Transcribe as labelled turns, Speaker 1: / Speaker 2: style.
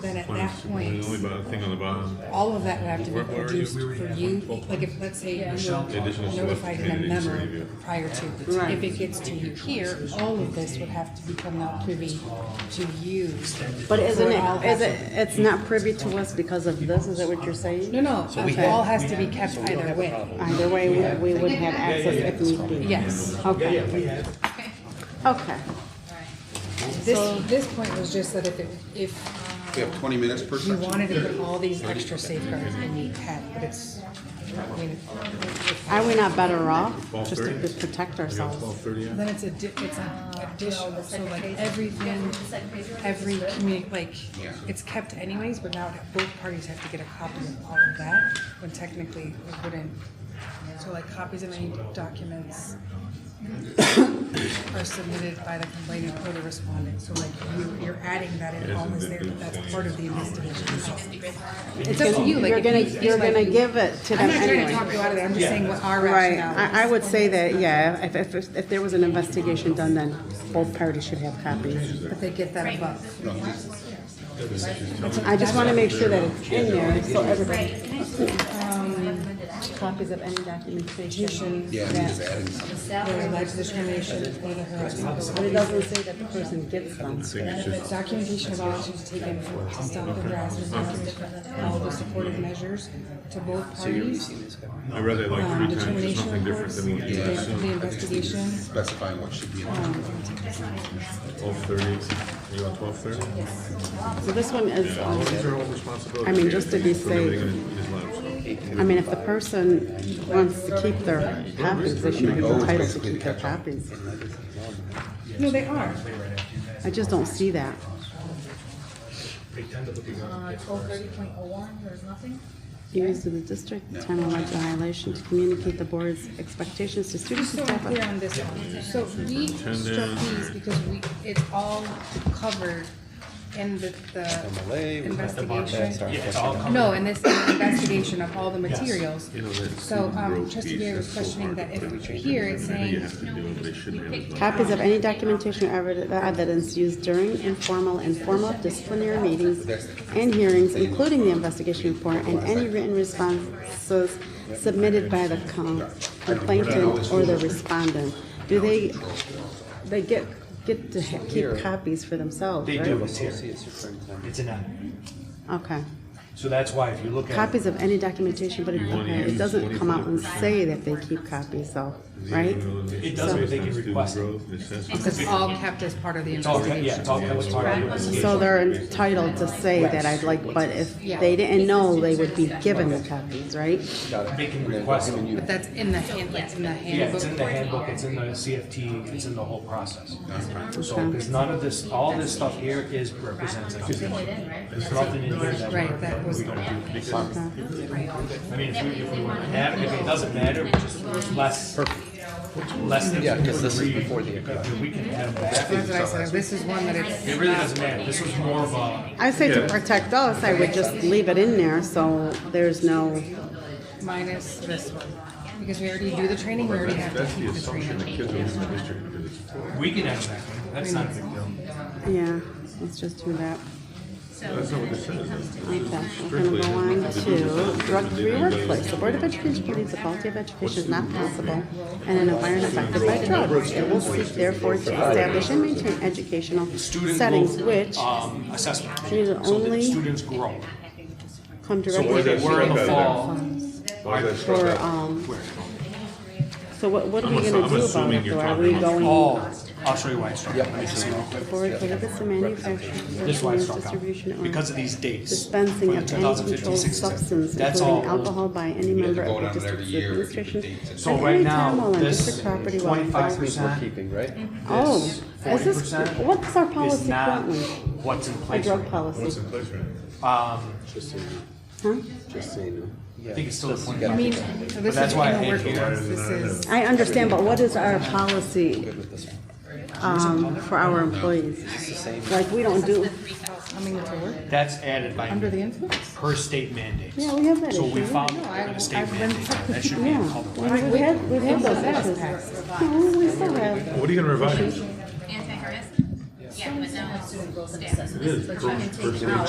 Speaker 1: There's
Speaker 2: points,
Speaker 1: only about a thing on the bottom.
Speaker 2: all of that would have to
Speaker 1: Where-
Speaker 2: be
Speaker 1: where are you?
Speaker 2: produced
Speaker 3: We were-
Speaker 2: for you, like if, let's say you
Speaker 1: Michelle
Speaker 2: were
Speaker 1: talked about
Speaker 2: notified in a
Speaker 1: community
Speaker 2: memo
Speaker 1: review.
Speaker 2: prior to.
Speaker 4: Right.
Speaker 2: If it gets to you here, all of this would have to become now privy to you.
Speaker 4: But isn't
Speaker 2: For
Speaker 4: it,
Speaker 2: all
Speaker 4: is it,
Speaker 2: hazards.
Speaker 4: it's not privy to us because of this, is that what you're saying?
Speaker 2: No, no, it all has to be kept either way.
Speaker 4: Either way, we, we would have access if need be.
Speaker 2: Yes.
Speaker 4: Okay, okay.
Speaker 2: This, this point was just that if, it- if
Speaker 5: We have twenty minutes per
Speaker 2: You
Speaker 5: section.
Speaker 2: wanted to put all these extra safeguards in you had, but it's, I mean,
Speaker 4: Are we not better off just to protect ourselves?
Speaker 2: then it's a, di- it's a additional, so Ah, like everything, every community, like, it's kept anyways, but now both parties have to get a copy of all of that, when technically it wouldn't. So like copies of any documents are submitted by the complainant or the respondent, so like you, you're adding that in all is there, but that's part of the investigation. It's up to you, like.
Speaker 4: You're
Speaker 2: if
Speaker 4: gonna,
Speaker 2: you feel
Speaker 4: you're
Speaker 2: like
Speaker 4: gonna
Speaker 2: you-
Speaker 4: give it to
Speaker 2: I'm
Speaker 4: them
Speaker 2: not trying to talk
Speaker 4: anyway.
Speaker 2: you out of it, I'm just saying what our
Speaker 4: Right,
Speaker 2: rationale is.
Speaker 4: I, I would say that, yeah, if, if- if, if there was an investigation done, then both parties should have copies.
Speaker 2: But they get that above.
Speaker 4: I just wanna make sure that it's in there, so everybody. um, Copies of any documentation.
Speaker 5: Yeah, we just added some.
Speaker 2: Whether alleged discrimination, whether harassment.
Speaker 4: But it doesn't say that the person gets them.
Speaker 2: Documentation of all actions taken to stop the harassment, all the supportive measures to both parties.
Speaker 1: I read that like
Speaker 2: Um,
Speaker 1: three times. There's
Speaker 2: determination
Speaker 1: nothing different
Speaker 2: reports,
Speaker 1: than what you
Speaker 2: the
Speaker 1: assume.
Speaker 2: the investigation.
Speaker 5: specifying what should be in there.
Speaker 1: Twelve thirty. You want twelve thirty?
Speaker 4: So this one is, um,
Speaker 1: These are all responsibilities.
Speaker 4: I mean, just to be safe. I mean, if the person wants to keep their copies, they should be entitled to keep their copies.
Speaker 2: No, they are.
Speaker 4: I just don't see that.
Speaker 6: Twelve thirty point oh one, there's nothing?
Speaker 4: Use of the district, time of alleged violation to communicate the board's expectations to students
Speaker 2: So
Speaker 4: and
Speaker 2: I'm
Speaker 4: staff.
Speaker 2: clear on this one. So we struck these because we, it's all covered in the, the investigation. No, in this investigation of all the materials. So, um, trustee Gary was questioning that if here it's saying,
Speaker 4: Copies of any documentation or evid- evidence used during informal and formal disciplinary meetings and hearings, including the investigation report and any written responses submitted by the com- complainant or the respondent. Do they, they get, get to ha- keep copies for themselves,
Speaker 7: They
Speaker 4: right?
Speaker 7: do, it's here. It's in that.
Speaker 4: Okay.
Speaker 7: So that's why if you look at,
Speaker 4: Copies of any documentation, but it, okay, it doesn't come out and say that they keep copies, though, right?
Speaker 1: It
Speaker 7: does, but they can request it.
Speaker 2: it's all kept as part of the
Speaker 7: it's all, yeah,
Speaker 2: investigation.
Speaker 7: it's all, that was part of the
Speaker 4: So
Speaker 7: investigation.
Speaker 4: they're entitled to say that I'd like, but if they didn't know, they would be given the copies, right?
Speaker 7: They can request it.
Speaker 2: But that's in the hand, like, in the
Speaker 7: Yeah, it's in the
Speaker 2: handbook.
Speaker 7: handbook, it's in the CFT, it's in the whole process. So, because none of this, all this stuff here is represents a community. There's nothing in here that,
Speaker 2: Right, that was,
Speaker 7: I mean, if we, if we want to have, it, if it doesn't matter, it's just it's less, less than.
Speaker 3: Yeah, 'cause this is before the-
Speaker 7: We can have that.
Speaker 2: that's what I said, this is one that it's.
Speaker 7: It really doesn't matter, this was more of a,
Speaker 4: I say to protect us, I would just leave it in there, so there's no,
Speaker 2: minus this one. Because we already do the training, we already have to
Speaker 1: That's the
Speaker 2: keep the
Speaker 1: assumption that
Speaker 2: training.
Speaker 1: kids are in the district. do this.
Speaker 7: we can have that, one. that's not a big deal.
Speaker 4: yeah, let's just do that.
Speaker 1: That's not what this says.
Speaker 4: Okay, we're gonna go on to drug-free workplace. The Board of Education believes the quality of education is not possible in an environment affected by drugs. It will seek therefore to establish and maintain educational
Speaker 7: Student
Speaker 4: settings
Speaker 7: growth,
Speaker 4: which
Speaker 7: um, assessment.
Speaker 4: These are
Speaker 7: So that
Speaker 4: only-
Speaker 7: students grow.
Speaker 4: come
Speaker 7: Where
Speaker 4: directly
Speaker 7: they
Speaker 4: to
Speaker 7: were in the
Speaker 1: Better.
Speaker 7: fall,
Speaker 1: Why is that struck
Speaker 4: for,
Speaker 1: out?
Speaker 4: um, so what, what are we
Speaker 1: I'm
Speaker 4: gonna do about
Speaker 1: assuming
Speaker 4: it
Speaker 1: you're
Speaker 4: though? Are
Speaker 1: talking
Speaker 4: we
Speaker 1: about-
Speaker 4: going
Speaker 7: Oh, I'll show you why I struck. Let me just see real quick.
Speaker 4: forward prohibits the manufacture,
Speaker 7: This is why I
Speaker 4: use,
Speaker 7: struck out.
Speaker 4: distribution, or
Speaker 7: Because of these dates.
Speaker 4: dispensing
Speaker 7: From
Speaker 4: of
Speaker 7: 2015,
Speaker 4: any controlled
Speaker 7: 16,
Speaker 4: substance,
Speaker 7: That's all
Speaker 4: including
Speaker 7: old.
Speaker 4: alcohol, by any
Speaker 5: had to
Speaker 4: member
Speaker 5: go
Speaker 4: of the
Speaker 5: down there every
Speaker 4: district's
Speaker 5: year if the
Speaker 4: administration
Speaker 5: dates had-
Speaker 4: at
Speaker 7: So
Speaker 4: any
Speaker 7: right
Speaker 4: time
Speaker 7: now,
Speaker 4: while on
Speaker 7: this
Speaker 4: district property while
Speaker 7: twenty-five
Speaker 4: occupied.
Speaker 3: We're
Speaker 7: percent,
Speaker 3: keeping, right?
Speaker 4: Oh,
Speaker 7: this
Speaker 4: is
Speaker 7: forty
Speaker 4: this,
Speaker 7: percent
Speaker 4: what's our
Speaker 7: is
Speaker 4: policy
Speaker 7: not
Speaker 4: currently?
Speaker 7: what's in
Speaker 4: A
Speaker 7: place.
Speaker 4: drug
Speaker 7: right now.
Speaker 1: What's
Speaker 4: policy,
Speaker 1: in place right
Speaker 7: Um,
Speaker 4: huh?
Speaker 3: Just so you know.
Speaker 7: I think it's still at
Speaker 2: I
Speaker 7: twenty-five
Speaker 2: mean,
Speaker 7: percent.
Speaker 2: so this
Speaker 7: that's
Speaker 2: is
Speaker 7: why I
Speaker 2: in the
Speaker 7: hate
Speaker 2: working
Speaker 7: here.
Speaker 2: ones, this is,
Speaker 4: I understand, but what is our policy, um, for our employees? Like, we don't do,
Speaker 2: coming to work
Speaker 7: That's added
Speaker 2: under the
Speaker 7: by
Speaker 2: influence?
Speaker 7: per state mandates.
Speaker 4: yeah, we have that
Speaker 7: So
Speaker 4: issue.
Speaker 7: we found
Speaker 2: I-
Speaker 7: that a
Speaker 2: I've
Speaker 7: state
Speaker 2: been
Speaker 7: mandate, that should be in
Speaker 4: Yeah,
Speaker 7: color.
Speaker 4: we have, we have those issues. No, we still have,
Speaker 1: now? What are you gonna revise?
Speaker 6: Anti-harassment? Yeah, but no.
Speaker 1: It is. First- first day.